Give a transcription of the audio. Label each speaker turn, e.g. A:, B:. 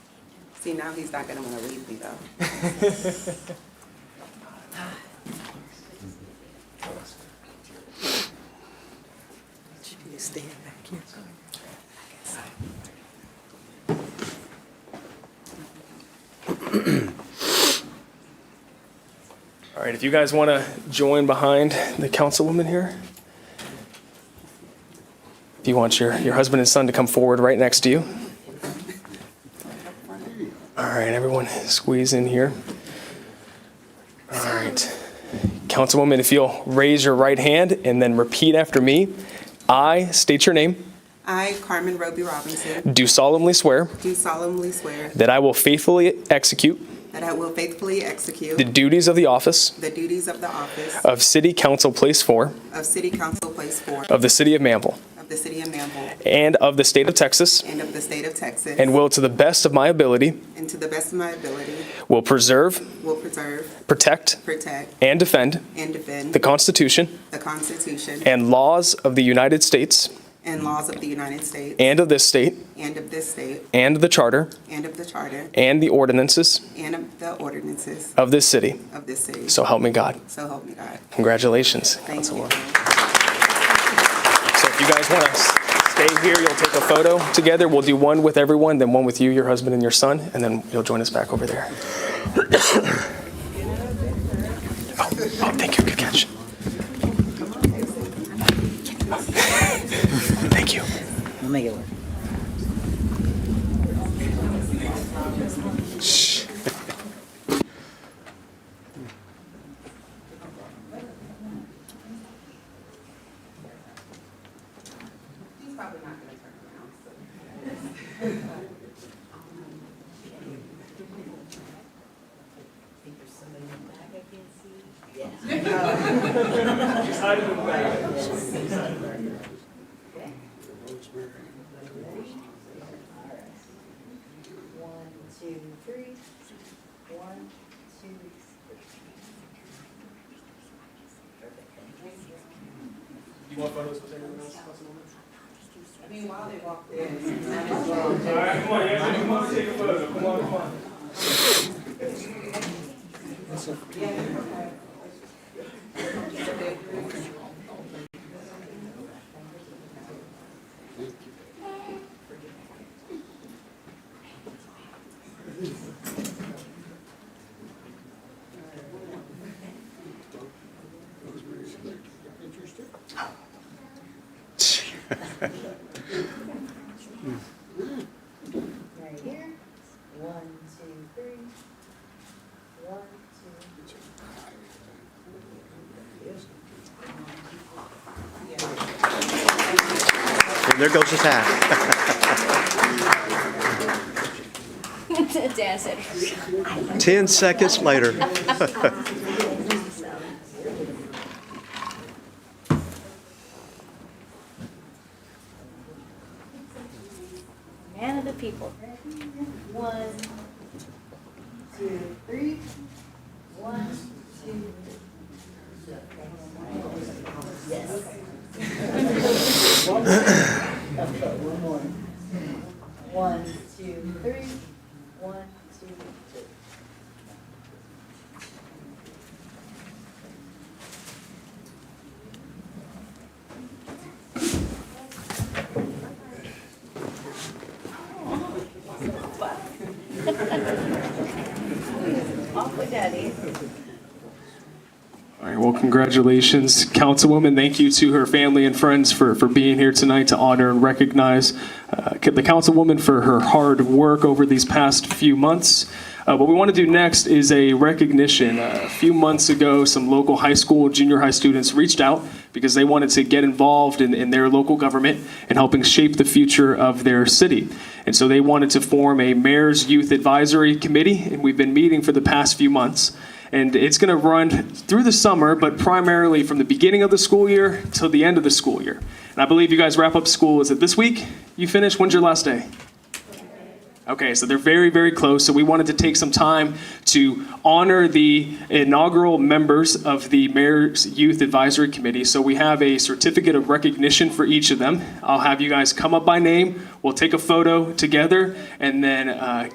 A: See, now he's not gonna wanna leave me though.
B: You stand back here.
C: All right, if you guys want to join behind the councilwoman here. If you want your, your husband and son to come forward right next to you. All right, everyone squeeze in here. All right. Councilwoman, if you'll raise your right hand and then repeat after me. I state your name,
A: I, Carmen Roby Robinson,
C: do solemnly swear
A: do solemnly swear
C: that I will faithfully execute
A: that I will faithfully execute
C: the duties of the office
A: the duties of the office
C: of City Council Place 4
A: of City Council Place Four
C: of the City of Manville.
A: of the City of Manville
C: and of the state of Texas,
A: and of the State of Texas,
C: and will, to the best of my ability,
A: and to the best of my ability,
C: will preserve,
A: will preserve,
C: protect,
A: protect,
C: and defend
A: and defend
C: the Constitution
A: the Constitution
C: and laws of the United States
A: and laws of the United States
C: and of this state,
A: and of this state
C: and the charter
A: and of the Charter
C: and the ordinances
A: and of the ordinances
C: of this city.
A: of this city.
C: So help me God.
A: So help me God.
C: Congratulations,
A: Thank you.
C: Councilwoman. So if you guys want to stay here, you'll take a photo together. We'll do one with everyone, then one with you, your husband, and your son, and then you'll join us back over there. Oh, oh, thank you. Good catch. Thank you.
B: I'll make it work.
A: He's probably not gonna turn around, so.
D: One, two, three. One, two, three.
A: I mean, while they walk in,
D: Right here. One, two, three. One, two.
E: And there goes his hat.
F: Dad said.
E: 10 seconds later.
F: Man of the people.
D: One, two, three. One, two. Yes. One more. One, two, three. One, two, three. Off with daddy.
C: All right, well, congratulations, Councilwoman. Thank you to her family and friends for, for being here tonight to honor and recognize uh, the Councilwoman for her hard work over these past few months. Uh, What we want to do next is a recognition. Uh, A few months ago, some local high school, junior high students reached out because they wanted to get involved in, in their local government and helping shape the future of their city. And so they wanted to form a Mayor's Youth Advisory Committee, and we've been meeting for the past few months. And it's going to run through the summer, but primarily from the beginning of the school year till the end of the school year. And I believe you guys wrap up school, is it this week you finish? When's your last day? Okay, so they're very, very close. So we wanted to take some time to honor the inaugural members of the Mayor's Youth Advisory Committee. So we have a certificate of recognition for each of them. I'll have you guys come up by name. We'll take a photo together and then uh,